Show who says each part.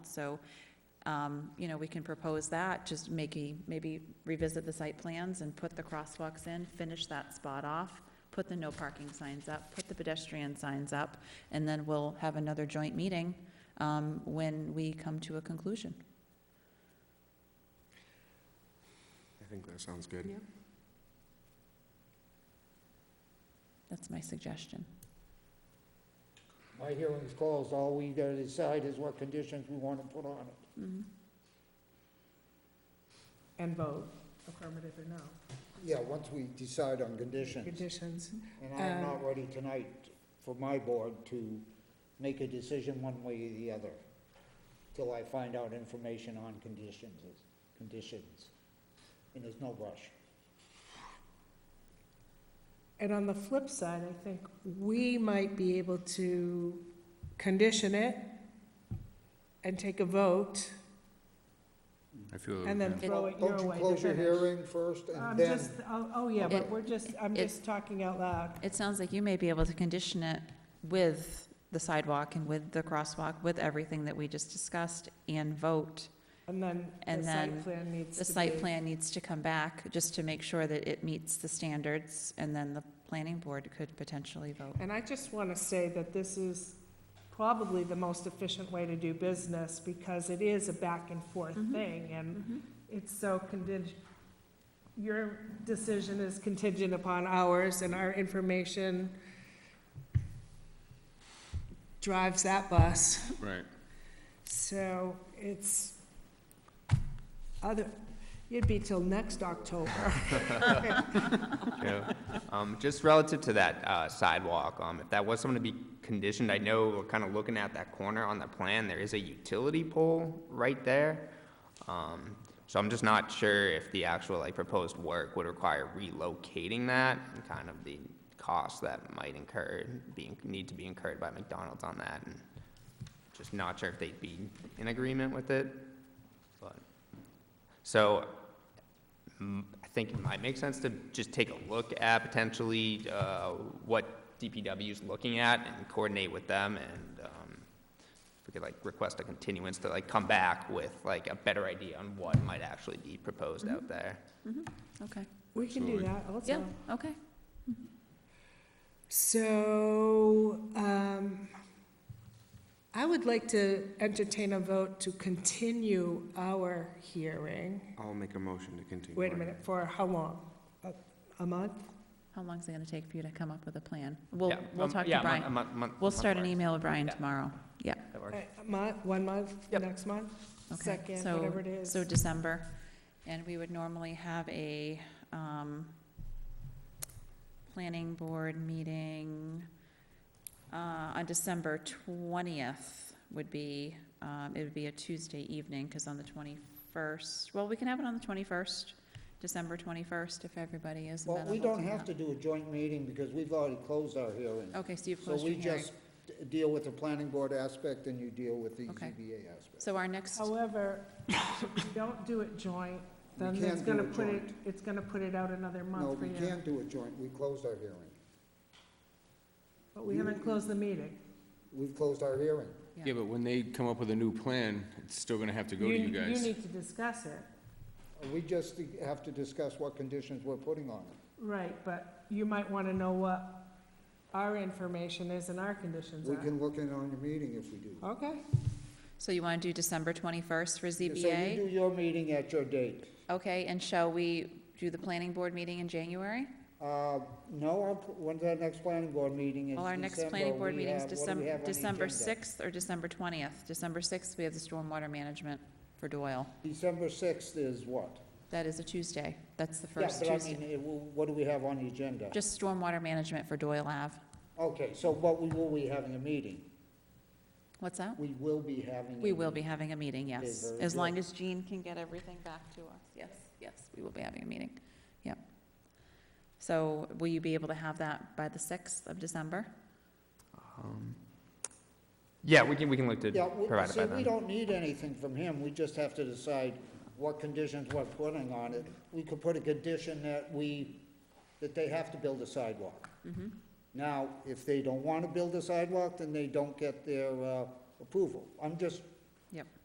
Speaker 1: So, um, you know, we can propose that, just maybe, maybe revisit the site plans and put the crosswalks in, finish that spot off, put the no parking signs up, put the pedestrian signs up, and then we'll have another joint meeting um, when we come to a conclusion.
Speaker 2: I think that sounds good.
Speaker 3: Yeah.
Speaker 1: That's my suggestion.
Speaker 4: My hearing's closed, all we gotta decide is what conditions we wanna put on it.
Speaker 1: Mhm.
Speaker 3: And vote affirmative or no.
Speaker 4: Yeah, once we decide on conditions,
Speaker 3: Conditions.
Speaker 4: and I am
Speaker 3: Uh,
Speaker 4: not ready tonight for my board to make a decision one way or the other, till I find out information on conditions, conditions, and there's no rush.
Speaker 3: And on the flip side, I think we might be able to condition it and take a vote
Speaker 5: I feel.
Speaker 3: and then
Speaker 5: yeah.
Speaker 3: throw it your way to
Speaker 4: Don't you close your
Speaker 3: finish.
Speaker 4: hearing first,
Speaker 3: I'm
Speaker 4: and then,
Speaker 3: just, oh, oh, yeah, but
Speaker 1: It-
Speaker 3: we're just, I'm
Speaker 1: it-
Speaker 3: just talking out loud.
Speaker 1: It sounds like you may be able to condition it with the sidewalk and with the crosswalk, with everything that we just discussed, and vote.
Speaker 3: And then the
Speaker 1: And
Speaker 3: site
Speaker 1: then
Speaker 3: plan needs to be.
Speaker 1: The site plan needs to come back, just to make sure that it meets the standards, and then the planning board could potentially vote.
Speaker 3: And I just want to say that this is probably the most efficient way to do business because it is a back and forth
Speaker 1: Mhm.
Speaker 3: thing and it's so contingent, your decision is contingent upon ours and our information drives that bus.
Speaker 5: Right.
Speaker 3: So it's other, it'd be till next October.
Speaker 6: True. Um, just relative to that, uh, sidewalk, um, if that was something to be conditioned, I know we're kind of looking at that corner on the plan, there is a utility pole right there. Um, so I'm just not sure if the actual, like, proposed work would require relocating that and kind of the cost that might incur, being, need to be incurred by McDonald's on that and just not sure if they'd be in agreement with it, but, so m- I think it might make sense to just take a look at potentially uh, what DPW is looking at and coordinate with them and um, if we could like request a continuance to like come back with like a better idea on what might actually be proposed out there.
Speaker 1: Mm-hmm. Okay,
Speaker 3: We can do
Speaker 5: Absolutely.
Speaker 3: that also.
Speaker 1: yeah, okay.
Speaker 3: So, um, I would like to entertain a vote to continue our hearing.
Speaker 2: I'll make a motion to continue.
Speaker 3: Wait a minute, for how long? A- A month?
Speaker 1: How long is it gonna take for you to come up with a plan? We'll,
Speaker 6: Yeah,
Speaker 1: we'll
Speaker 6: um,
Speaker 1: talk to
Speaker 6: yeah, a month- a
Speaker 1: Brian.
Speaker 6: month- month-
Speaker 1: We'll
Speaker 6: month
Speaker 1: start an
Speaker 6: works.
Speaker 1: email with Brian
Speaker 6: Yeah.
Speaker 1: tomorah. Yeah,
Speaker 6: That
Speaker 3: A
Speaker 6: works.
Speaker 3: month, one month,
Speaker 6: Yep.
Speaker 3: next month?
Speaker 1: okay.
Speaker 3: Second,
Speaker 1: So-
Speaker 3: whatever it is.
Speaker 1: So December, and we would normally have a, um, planning board meeting, uh, on December twentieth would be, um, it would be a Tuesday evening, because on the twenty-first, well, we can have it on the twenty-first, December twenty-first, if everybody is
Speaker 4: well,
Speaker 1: amenable
Speaker 4: we don't
Speaker 1: to
Speaker 4: have to
Speaker 1: that.
Speaker 4: do a joint meeting, because we've already closed our hearing.
Speaker 1: Okay, so you've
Speaker 4: So
Speaker 1: closed
Speaker 4: we
Speaker 1: your hearing.
Speaker 4: just d- deal with the planning board aspect, and you deal with the E
Speaker 1: Okay.
Speaker 4: ZBA aspect.
Speaker 1: So our next,
Speaker 3: However, if you don't do it joint,
Speaker 4: We
Speaker 3: then
Speaker 4: can't
Speaker 3: it's
Speaker 4: do
Speaker 3: gonna
Speaker 4: it
Speaker 3: put it,
Speaker 4: joint.
Speaker 3: it's gonna put it out another
Speaker 4: No,
Speaker 3: month for
Speaker 4: we
Speaker 3: you.
Speaker 4: can't do it joint, we closed our hearing.
Speaker 3: But we haven't closed the meeting.
Speaker 4: We've closed our hearing.
Speaker 1: Yeah.
Speaker 5: Yeah, but when they come up with a new plan, it's still gonna have to go to you
Speaker 3: You
Speaker 5: guys.
Speaker 3: need to discuss it.
Speaker 4: We just have to discuss what conditions we're putting on it.
Speaker 3: Right, but you might want to know what our information is and our conditions
Speaker 4: We
Speaker 3: are.
Speaker 4: can look in on your meeting if we do.
Speaker 3: Okay,
Speaker 1: so you want to do December twenty-first for ZBA?
Speaker 4: So you do your meeting at your date.
Speaker 1: Okay, and shall we do the planning board meeting in January?
Speaker 4: Uh, No, our pl- when's our next planning board meeting? Is
Speaker 1: Well, our next
Speaker 4: December.
Speaker 1: planning board
Speaker 4: We
Speaker 1: meeting is
Speaker 4: have- what do we have
Speaker 1: December,
Speaker 4: on the
Speaker 1: December
Speaker 4: agenda?
Speaker 1: sixth or December twentieth. December sixth, we have the stormwater management for Doyle.
Speaker 4: December sixth is what?
Speaker 1: That is a Tuesday. That's the
Speaker 4: Yeah,
Speaker 1: first
Speaker 4: but I mean,
Speaker 1: Tuesday.
Speaker 4: it will- what do we have on the agenda?
Speaker 1: Just stormwater management for Doyle Ave.
Speaker 4: Okay, so what we will be having a meeting?
Speaker 1: What's that?
Speaker 4: We will be having. a
Speaker 1: We will be
Speaker 4: meeting.
Speaker 1: having a meeting, yes.
Speaker 4: very
Speaker 1: As
Speaker 4: good.
Speaker 1: long as Jean can get everything back to us. Yes, yes, we will be having a meeting. Yep. So will you be able to have that by the sixth of December?
Speaker 6: Um, Yeah, we can, we can look to
Speaker 4: Yeah, we-
Speaker 6: provide it by
Speaker 4: see, we
Speaker 6: then.
Speaker 4: don't need anything from him, we just have to decide what conditions we're putting on it. We could put a condition that we, that they have to build a sidewalk.
Speaker 6: Mm-hmm.
Speaker 4: Now, if they don't want to build a sidewalk, then they don't get their uh, approval. I'm just
Speaker 1: Yep.